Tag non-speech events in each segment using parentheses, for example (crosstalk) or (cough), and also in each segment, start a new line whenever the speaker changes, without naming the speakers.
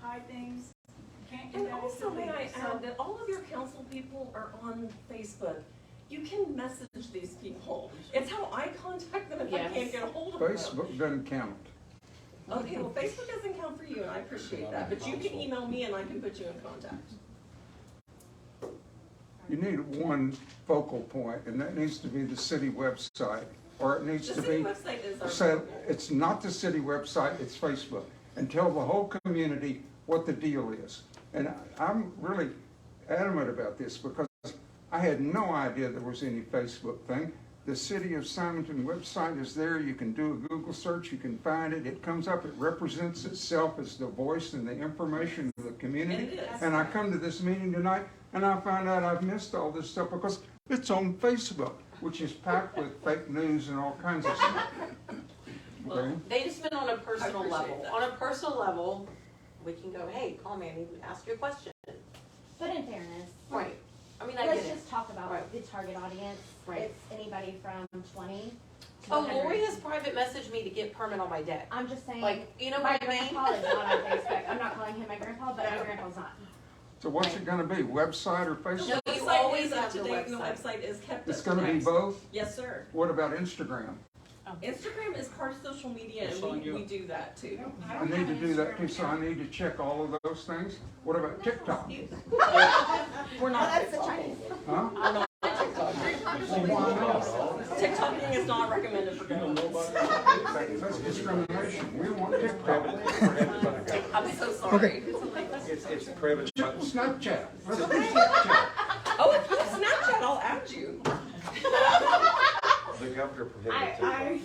buy things, can't do
And
that. as
also, may I
somebody, so-
add that all of your council people are on Facebook. You can message these people. It's how I contact them if I
Yes.
can't get a hold of them.
Facebook doesn't count.
Okay, well, Facebook doesn't count for you, and I appreciate that, but you can email me and I can put you in contact.
You need one focal point, and that needs to be the city website, or it needs
The
to
city
be,
website is our.
so it's not the city website, it's Facebook, and tell the whole community what the deal is. And I- I'm really adamant about this because I had no idea there was any Facebook thing. The City of Simonton website is there, you can do a Google search, you can find it, it comes up, it represents itself as the voice and the information of the community.
It is.
And I come to this meeting tonight and I find out I've missed all this stuff because it's on Facebook, which is packed with fake news and all kinds of stuff. Okay?
Well, they just been on a personal
I appreciate
level.
that.
On a personal level, we can go, hey, call me, I need to ask you a question.
But in fairness,
Right. I mean, I get
let's
it.
just talk about
Right.
the target audience.
Right.
It's anybody from twenty to
Oh,
hundred.
Lori has private messaged me to get permit on my deck.
I'm just saying,
Like, you know
my
what I mean?
grandpa is not on Facebook. I'm not calling him my grandpa, but
No.
my grandpa's not.
So what's it gonna be, website or
The
Facebook?
No, you
website
always
is up
have
to
the
date and the
website.
website is kept
It's
up
gonna
to
be
date.
both?
Yes, sir.
What about Instagram?
Instagram is part of social media
It's
and
on
we,
you.
we do that too.
I need to do that too, so I need to check all of those things. What about TikTok?
We're not
That's the
TikTok.
Chinese.
Huh?
We're not TikTok.
TikTok.
TikToking is not recommended for
You don't
girls.
know about it.
That's discrimination. We want TikTok.
I'm so sorry.
(laughs) It's, it's prohibited. by-
Snapchat. Let's do Snapchat.
Oh, if you have Snapchat, I'll add you.
The governor prohibited it.
I,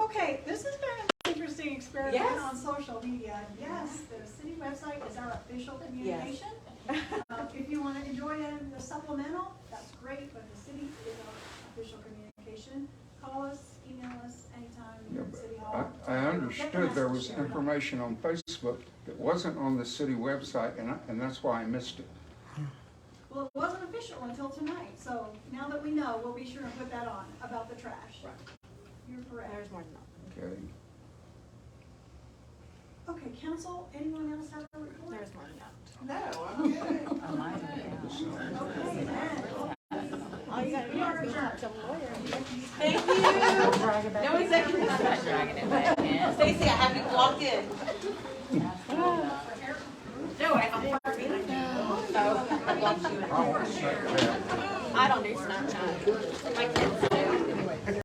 I.
Okay, this has been an interesting experiment
Yes.
on social media. Yes, the city website is our official communication. Uh, If you want to enjoy it in the supplemental, that's great, but the city is our official communication. Call us, email us anytime,
Yeah,
you're at
but
City
I,
Hall.
I understood there was
Get the message.
information on Facebook that wasn't on the city website, and I, and that's why I missed it.
Well, it wasn't official until tonight, so now that we know, we'll be sure and put that on about the trash. Right. You're correct.
more than
Okay.
Okay, council, anyone else have a report?
more than that.
No, I'm good.
(laughs)
Okay, then.
All you gotta
We are adjourned.
Thank you. No executive session. Stacy, I have you logged in. No, I am far behind you. So, I blocked you in.
I want Snapchat.
I don't do Snapchat. My kids